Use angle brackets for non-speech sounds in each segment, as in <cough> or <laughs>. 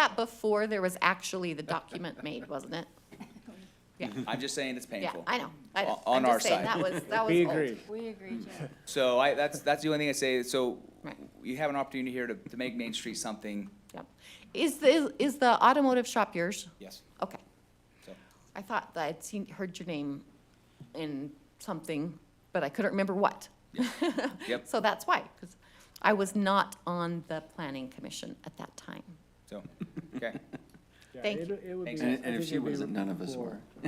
that before there was actually the document made, wasn't it? I'm just saying it's Yeah, <laughs> painful. I know, I know. On I'm just our saying, side. That was, <laughs> that was We old. agree. We agree, Jim. So I, that's, that's the only thing I say, so Right. you have an opportunity here to, to make Main Street something, Yep. Is the, is the automotive shop yours? yes, Okay. so. I thought that I'd seen, heard your name in something, but I couldn't remember what. <laughs> Yep, So that's why, because I was not on the planning commission at that time. so, <laughs> okay. Yeah, Thank it- you. it would be- Thanks. I And, and think if she it'd be wasn't, none of us cool.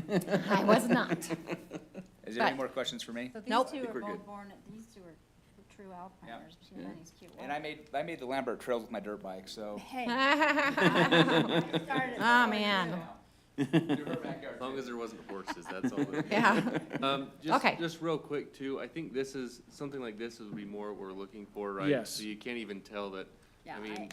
were. I was not. <laughs> <laughs> Is there any But- more questions for me? So Nope. these I two think are we're good. both born, these two are true alpiners. She Yeah. Lenny's cute. And I made, I made the Lambert Trails with my dirt bike, so. Hey. <laughs> <laughs> Oh, I started before <laughs> man. you. As long as there wasn't horses, that's all. that- Yeah. Um, just, Okay. just real quick too, I think this is, something like this would be more what we're looking for, right? Yes. So you can't even tell that, Yeah, I mean,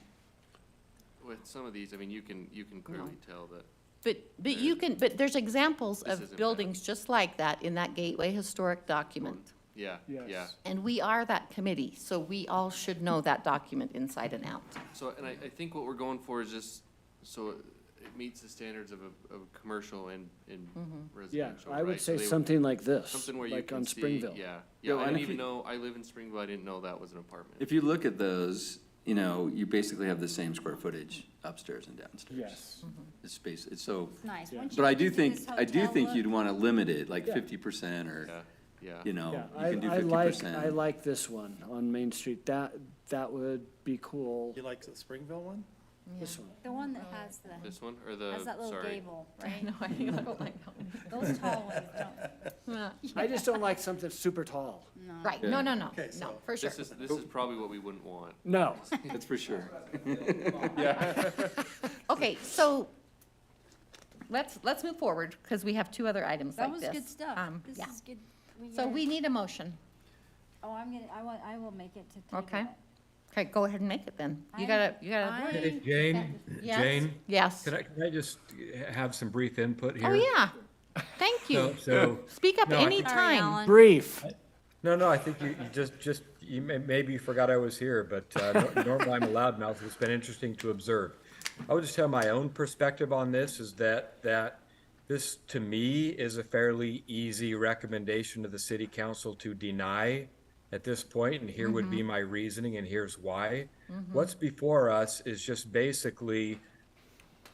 with some of these, I mean, you can, you can clearly tell that. But, but you can, but there's examples This isn't of bad. buildings just like that in that Gateway Historic document. Yeah, yeah. Yes. And we are that committee, so we all should know that document inside and <laughs> out. So, and I, I think what we're going for is just, so it meets the standards of, a- of a commercial and, and Mm-hmm. Yeah, residential, I would right? So say they- something like this, Something where you like can on see, Springville. yeah. Yeah, Well, I and didn't if even you- know, I live in Springville, I didn't know that was an apartment. If you look at those, you know, you basically have the same square footage upstairs and downstairs. Yes, It's space, it's so, it's nice. Yeah. Once you but I do get think, this I do hotel think look- you'd want to limit it, like Yeah. fifty percent or, Yeah, yeah. you know, yeah, Oh, you I, can do I fifty like, I percent. like this one on Main Street, that, that would be cool, You like the Springville one? <laughs> this one. The one that has the, This one, or the, has that little sorry, <laughs> gable, I right? know, I don't like that one. Those tall ones don't, I just don't like something super tall, <laughs> Right, no, Yeah. no, no, Okay, no, so- for sure. this is, this is probably what we wouldn't want. no, That's for sure. Okay, so let's, let's move forward because we have two other items that like was this. good stuff. Um, This yeah. is good. So gotta- we need a motion. Oh, I'm gonna, I want, I will make it to table Okay. it. Okay, go ahead and make it then. You I- gotta, you gotta. I- Hey, Jane, Yes? Jane, Yes. can I, can I just have some brief input here? Oh, yeah. Thank So- you. So, Speak up No, I any think- Sorry, time. Alan. brief, <laughs> no, no, I think you, you just, just, you may, maybe you forgot I was here, but, uh, nor- <laughs> normally I'm a loudmouth, it's been interesting to observe. I would just tell my own perspective on this is that, that this, to me, is a fairly easy recommendation to the city council to deny at this point, and here would be Mm-hmm. my reasoning, and here's why. What's before us is just basically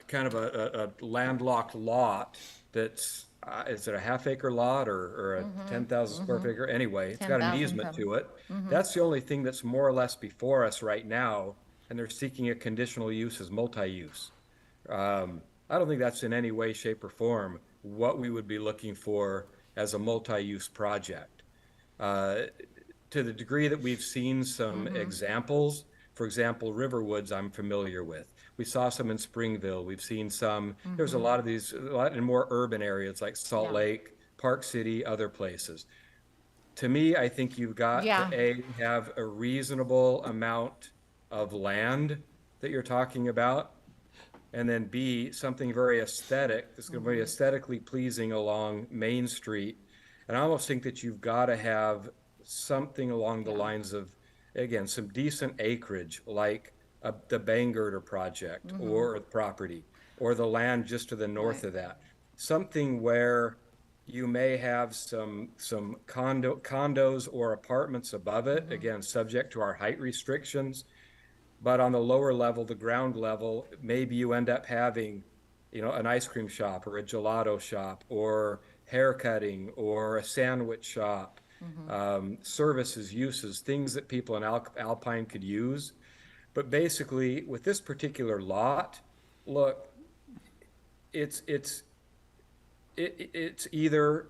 kind of a, a, a landlocked lot that's, uh, is it a half acre lot or, or a ten thousand square foot acre? Anyway, it's got 10,000 an easement to it. That's the only thing that's more or less before us right now, and they're seeking a conditional use as multi-use. Um, I don't think that's in any way, shape or form what we would be looking for as a multi-use project Uh, to the degree that we've seen some Mm-hmm. examples, for example, Riverwoods, I'm familiar with. We saw some in Springville. We've seen some, there's a lot of these, a lot in more urban areas like Salt Mm-hmm. Yeah. Lake, Park City, other places. To me, I think you've got Yeah. to A, have a reasonable amount of land that you're talking about. And then B, something very aesthetic, that's gonna be aesthetically pleasing along Main Street. And I almost think that you've gotta have something along the lines of, again, some decent acreage, like uh, the Bangirter project or property, or the land just to the north of that. Something where you may have some, some condo, condos or apartments above it, again, subject to our height restrictions. But on the lower level, the ground level, maybe you end up having, you know, an ice cream shop or a gelato shop or haircutting or a sandwich shop, um, services, uses, things that people in Al- Alpine could use. But basically, with this particular lot, look, it's it's it, it- it's either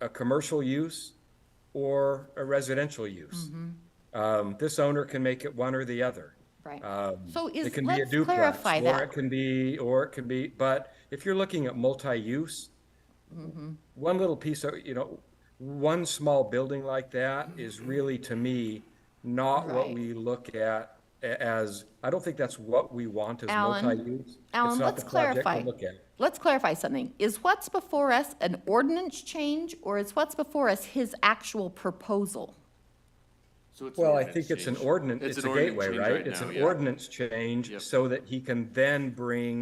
a commercial use or a residential use. Um, this owner can make it one or the other. Right. Um, So is, it can be a let's duplex, clarify Or it that. can be, or it can be, but if you're looking at multi-use, Mm-hmm. one little piece of, you know, one small building like that is really, to me, not what Mm-hmm. Right. we look at a- as, I don't think that's what we want as Alan, multi-use. It's Alan, not let's the project to clarify. look at. Let's clarify something. Is what's before us an ordinance change or is what's before us his actual proposal? So it's an Well, I ordinance think it's an change. ordinance, it's an a ordinance gateway, change right? It's now, an yeah. ordinance change Yep. so that he can then bring